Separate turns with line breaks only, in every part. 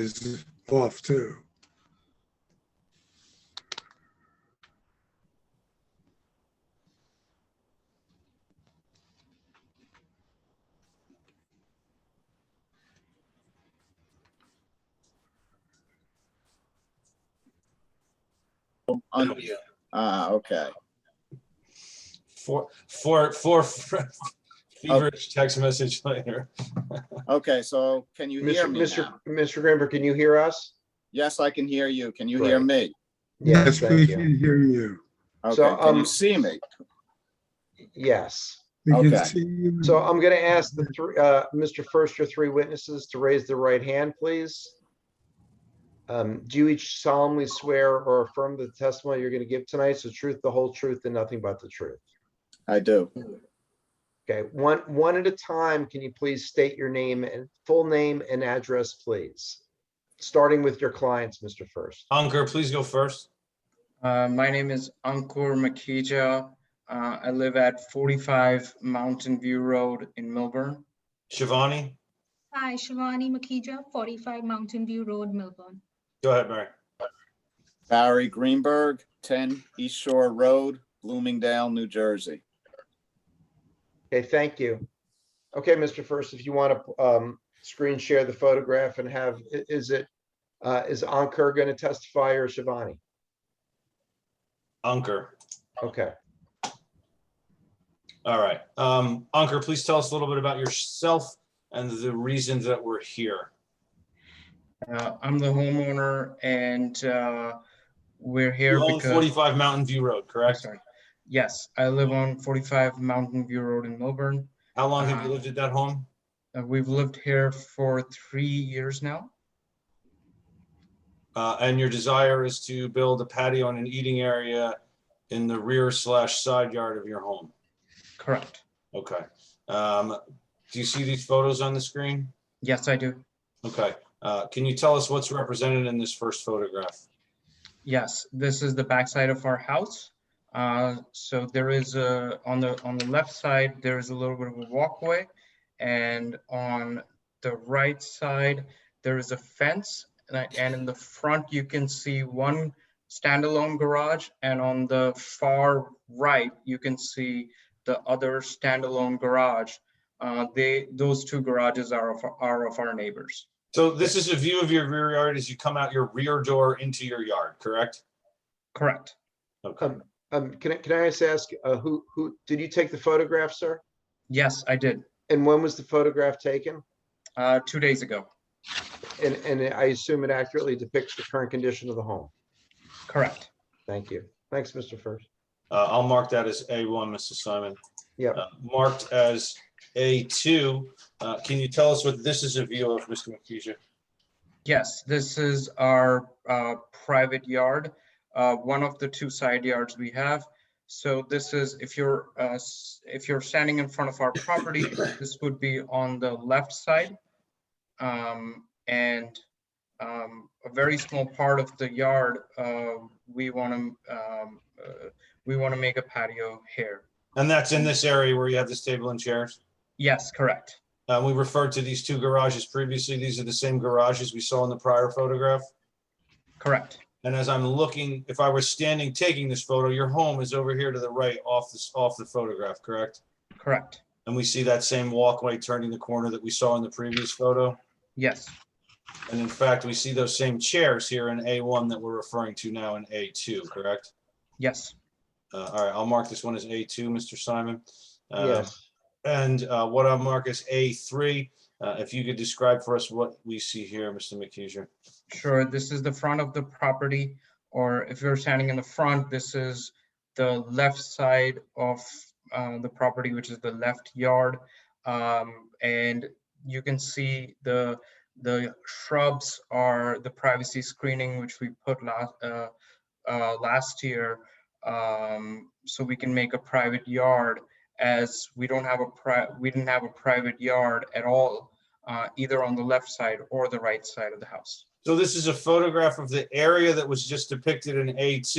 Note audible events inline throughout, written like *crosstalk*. is off too.
Unmute. Ah, okay.
Four, four, four *laughs*
Oh.
feverish text message later.
Okay, so can you hear
Mr.
me
Mr.
now?
Mr. Grimber, can you hear us?
Yes, I can hear you. Can you hear me?
Yes, we
Thank you.
can hear you.
Okay,
So,
can you
um,
see me?
Yes.
We can
Okay.
see you.
So I'm going to ask the three, uh, Mr. First, your three witnesses to raise their right hand, please. Um, do you each solemnly swear or affirm that the testimony you're going to give tonight is the truth, the whole truth, and nothing but the truth?
I do.
Okay, one, one at a time, can you please state your name and full name and address, please? Starting with your clients, Mr. First.
Ankur, please go first.
Uh, my name is Ankur Makija. Uh, I live at 45 Mountain View Road in Milburn.
Shivani,
Hi, Shivani Makija, 45 Mountain View Road, Melbourne.
go ahead, Mary.
Barry Greenberg, 10 East Shore Road, Bloomingdale, New Jersey.
Okay, thank you. Okay, Mr. First, if you want to um, screen share the photograph and have, i- is it, uh, is Ankur going to testify or Shivani?
Ankur.
Okay,
All right. Um, Ankur, please tell us a little bit about yourself and the reason that we're here.
Uh, I'm the homeowner and uh, we're here
You own
because.
45 Mountain View Road, correct?
Sorry. Yes, I live on 45 Mountain View Road in Milburn.
How long have you
Uh,
lived at that home?
Uh, We've lived here for three years now.
Uh, and your desire is to build a patio and an eating area in the rear slash side yard of your home.
Correct.
Okay. Um, do you see these photos on the screen?
Yes, I do.
Okay. Uh, can you tell us what's represented in this first photograph?
Yes, this is the backside of our house. Uh, So there is a, on the, on the left side, there is a little bit of a walkway. And on the right side, there is a fence. And I- And in the front, you can see one standalone garage. And on the far right, you can see the other standalone garage. Uh, They, those two garages are of, are of our neighbors.
So this is a view of your rear yard as you come out your rear door into your yard, correct?
Correct.
Okay.
um, can I, can I just ask, uh, who, who, did you take the photograph, sir?
Yes, I did,
And when was the photograph taken?
uh, two days ago.
And, and I assume it accurately depicts the current condition of the home.
Correct.
Thank you. Thanks, Mr. First.
Uh, I'll mark that as A1, Mr. Simon.
Yep.
Uh, Marked as A2. Uh, Can you tell us what this is a view of, Mr. Makija?
Yes, this is our uh, private yard, uh, one of the two side yards we have. So this is, if you're, uh, s- if you're standing in front of our property, this would be on the left side. Um, And um, a very small part of the yard, uh, we want to, we want to make a patio here.
And that's in this area where you have this table and chairs.
Yes, correct.
Uh, We referred to these two garages previously. These are the same garages we saw in the prior photograph.
Correct.
And as I'm looking, if I were standing taking this photo, your home is over here to the right off this, off the photograph, correct?
Correct.
And we see that same walkway turning the corner that we saw in the previous photo?
Yes,
And in fact, we see those same chairs here in A1 that we're referring to now in A2, correct?
yes,
Uh, All right, I'll mark this one as A2, Mr. Simon. Uh,
Yes.
And uh, what I'll mark as A3, uh, if you could describe for us what we see here, Mr. McKeisha.
Sure, this is the front of the property, or if you're standing in the front, this is the left side of uh, the property, which is the left yard. Um, And you can see the, the shrubs are the privacy screening, which we put last, last year. um, So we can make a private yard as we don't have a pri, we didn't have a private yard at all, uh, either on the left side or the right side of the house.
So this is a photograph of the area that was just depicted in A2.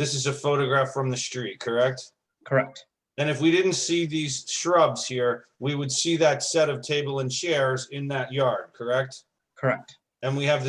This is a photograph from the street, correct?
Correct.
And if we didn't see these shrubs here, we would see that set of table and chairs in that yard, correct?
Correct.
And we have the